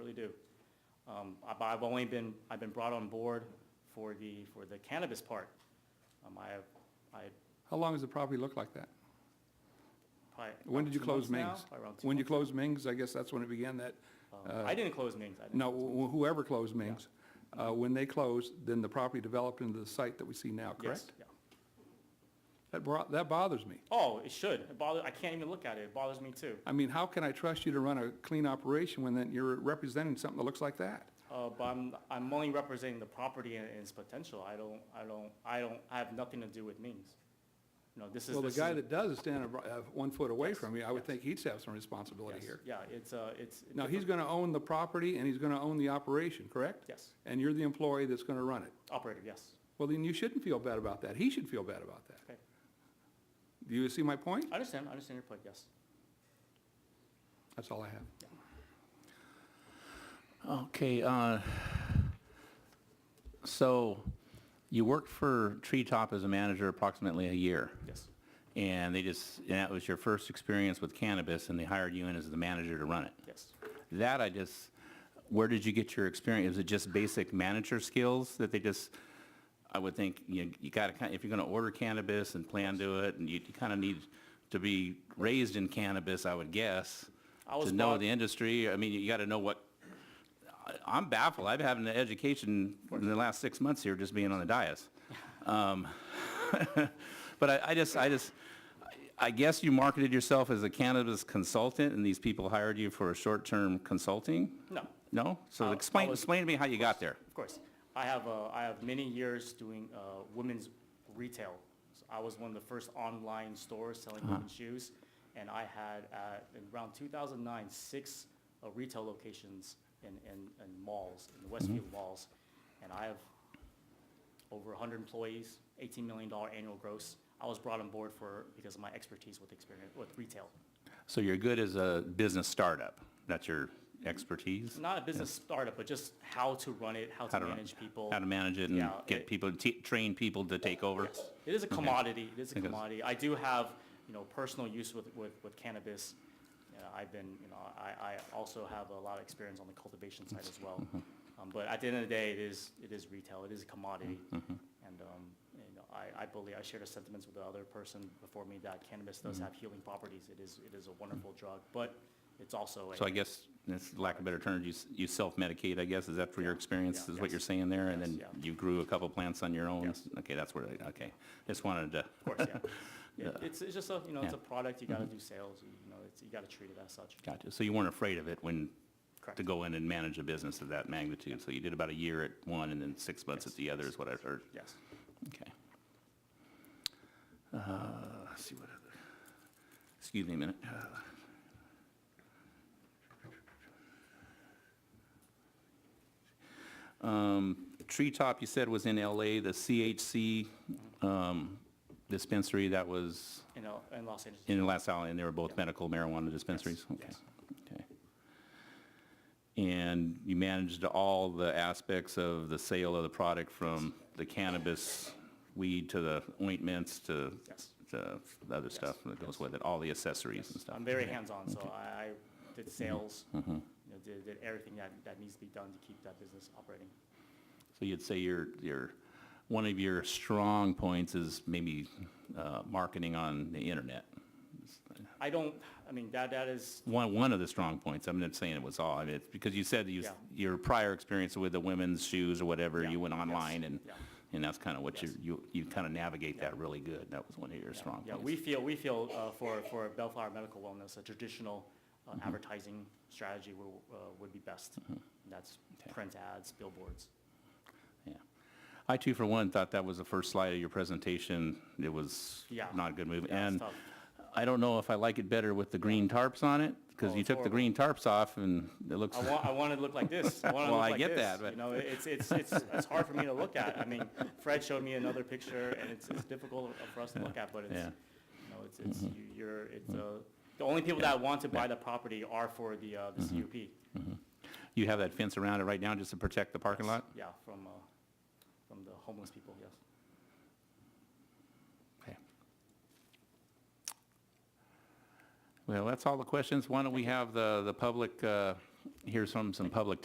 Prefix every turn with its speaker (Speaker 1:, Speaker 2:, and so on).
Speaker 1: absolutely do. Um, I- but I've only been, I've been brought on board for the, for the cannabis part. Um, I have, I had
Speaker 2: How long has the property looked like that?
Speaker 1: probably.
Speaker 2: When did you
Speaker 1: two
Speaker 2: close
Speaker 1: months now,
Speaker 2: Ming's?
Speaker 1: probably around two
Speaker 2: When you
Speaker 1: months.
Speaker 2: closed Ming's, I guess that's when it began that,
Speaker 1: Um, I didn't close Ming's. I didn't.
Speaker 2: no, wh- whoever closed Ming's. Uh, When they closed, then the property developed into the site that we see now,
Speaker 1: Yes,
Speaker 2: correct?
Speaker 1: yeah.
Speaker 2: That bro- that bothers me.
Speaker 1: Oh, it should. It bothers, I can't even look at it. It bothers me too.
Speaker 2: I mean, how can I trust you to run a clean operation when then you're representing something that looks like that?
Speaker 1: Uh, but I'm, I'm only representing the property and its potential. I don't, I don't, I don't, I have nothing to do with Ming's. No, this is.
Speaker 2: Well, the
Speaker 1: this is a-
Speaker 2: guy that does is standing abr- uh, one foot away
Speaker 1: Yes,
Speaker 2: from you, I would
Speaker 1: yes.
Speaker 2: think he'd have some responsibility
Speaker 1: yes,
Speaker 2: here.
Speaker 1: Yeah, it's, uh, it's.
Speaker 2: Now, he's going to own the property and he's going to own the operation, correct?
Speaker 1: Yes,
Speaker 2: And you're the employee that's going to run it.
Speaker 1: operator, yes.
Speaker 2: Well, then you shouldn't feel bad about that. He should feel bad about that.
Speaker 1: Okay.
Speaker 2: Do you see my point?
Speaker 1: I understand, I understand your point, yes.
Speaker 2: That's all I have.
Speaker 3: Okay, uh, so you worked for Treetop as a manager approximately a year,
Speaker 1: Yes,
Speaker 3: and they just, and that was your first experience with cannabis, and they hired you in as the manager to run it.
Speaker 1: yes.
Speaker 3: That I just, where did you get your experience? Is it just basic manager skills that they just, I would think, you, you gotta, kind if you're gonna order cannabis and plan to it, and you kind of need to be raised in cannabis, I would guess,
Speaker 1: I was
Speaker 3: to know
Speaker 1: brought-
Speaker 3: the industry, I mean, you gotta know what, I- I'm baffled, I've had an education in the last six months here, just being on the dais. Um, But I, I just, I just, I guess you marketed yourself as a cannabis consultant, and these people hired you for a short-term consulting?
Speaker 1: No,
Speaker 3: No?
Speaker 1: I-
Speaker 3: So
Speaker 1: I
Speaker 3: explain,
Speaker 1: was-
Speaker 3: explain to me how you got there.
Speaker 1: of course. I have, uh, I have many years doing, uh, women's retail. So I was one of the first online stores selling
Speaker 3: Uh-huh.
Speaker 1: women's shoes, and I had, uh, in around two thousand nine, six, uh, retail locations in, in, in malls, in the
Speaker 3: Mm-hmm.
Speaker 1: Westfield malls. And I have over hundred employees, eighteen million dollar annual gross. I was brought on board for, because of my expertise with experience, with retail.
Speaker 3: So you're good as a business startup? That's your expertise?
Speaker 1: Not a business startup, but just how to run it, how to
Speaker 3: How to run-
Speaker 1: manage people.
Speaker 3: How to manage it and
Speaker 1: Yeah,
Speaker 3: get
Speaker 1: it-
Speaker 3: people, t- train people to take over?
Speaker 1: Yes, it is a
Speaker 3: Okay.
Speaker 1: commodity, it is a
Speaker 3: Because-
Speaker 1: commodity. I do have, you know, personal use with, with, with cannabis. Uh, I've been, you know, I, I also have a lot of experience on the cultivation side as well.
Speaker 3: Mm-hmm.
Speaker 1: Um, but at the end of the day, it is, it is retail, it is a commodity.
Speaker 3: Mm-hmm.
Speaker 1: And, um, you know, I, I believe, I share the sentiments with the other person before me that cannabis does
Speaker 3: Mm-hmm.
Speaker 1: have healing properties. It is, it is a wonderful drug, but it's also a.
Speaker 3: So I guess, that's lack of better term, you, s- you self-medicate, I guess, is that for your
Speaker 1: Yeah,
Speaker 3: experience,
Speaker 1: yeah,
Speaker 3: is what
Speaker 1: yes.
Speaker 3: you're saying there? And
Speaker 1: Yes,
Speaker 3: then
Speaker 1: yeah.
Speaker 3: you grew a couple plants on your own?
Speaker 1: Yes.
Speaker 3: Okay, that's where, I- okay. Just wanted to,
Speaker 1: Of course, yeah. yeah. It's, it's just a, you know, it's a
Speaker 3: Yeah. Mm-hmm.
Speaker 1: product, you gotta do sales, you know, it's, you gotta treat it as such.
Speaker 3: gotcha. So you weren't afraid of it when,
Speaker 1: Correct.
Speaker 3: to go in and manage a business of that magnitude? So you did about a year at one and then six months at the other is what I've heard?
Speaker 1: Yes.
Speaker 3: Okay. Uh, Let's see what other, excuse me a minute. Um, Treetop, you said, was in LA, the CHC um, dispensary that was
Speaker 1: You know, in Los Angeles.
Speaker 3: in Las Al, and they were both medical marijuana dispensaries? Okay.
Speaker 1: yes.
Speaker 3: Okay. And you managed all the aspects of the sale of the product from the cannabis weed to the ointments to
Speaker 1: Yes.
Speaker 3: to the other stuff that goes with it, all the accessories and stuff?
Speaker 1: I'm very
Speaker 3: Okay. Mm-hmm.
Speaker 1: hands-on, so I, I did sales, you know, did, did everything that, that needs to be done to keep that business operating.
Speaker 3: So you'd say your, your, one of your strong points is maybe uh, marketing on the internet?
Speaker 1: I don't, I mean, that, that is,
Speaker 3: One, one of the strong points, I'm not saying it was all, I mean, it's because you said you,
Speaker 1: Yeah.
Speaker 3: your prior experience with the women's shoes or whatever,
Speaker 1: Yeah,
Speaker 3: you went
Speaker 1: yes,
Speaker 3: online and,
Speaker 1: yeah.
Speaker 3: and that's kind of what you,
Speaker 1: Yes.
Speaker 3: you, you kind of navigate that really good. That was one of your strong
Speaker 1: yeah,
Speaker 3: points.
Speaker 1: we feel, we feel, uh, for, for Bellflower Medical Wellness, a traditional uh,
Speaker 3: Mm-hmm.
Speaker 1: advertising strategy will, uh, would be best. And That's
Speaker 3: Okay.
Speaker 1: print ads, billboards.
Speaker 3: Yeah. I too, for one, thought that was the first slide of your presentation. It was
Speaker 1: Yeah.
Speaker 3: not a good move.
Speaker 1: Yeah, it's
Speaker 3: And
Speaker 1: tough.
Speaker 3: I don't know if I like it better with the green tarps on it,
Speaker 1: Oh,
Speaker 3: because you
Speaker 1: it's
Speaker 3: took the
Speaker 1: horrible.
Speaker 3: green tarps off and it looks,
Speaker 1: I want, I want it to look like this. I want it to
Speaker 3: Well,
Speaker 1: look
Speaker 3: I
Speaker 1: like
Speaker 3: get
Speaker 1: this.
Speaker 3: that, but-
Speaker 1: You know, it's, it's, it's, it's hard for me to look at. I mean, Fred showed me another picture, and it's, it's difficult for us to look at, but it's, you know, it's, it's,
Speaker 3: Mm-hmm.
Speaker 1: you- you're, it's, uh, the only people that want to buy the property are for the, uh,
Speaker 3: Mm-hmm.
Speaker 1: the CUP.
Speaker 3: you have that fence around it right now just to protect the parking lot?
Speaker 1: Yeah, from, uh, from the homeless people, yes.
Speaker 3: Okay. Well, that's all the questions. Why don't we have the, the public, uh, hear some, some public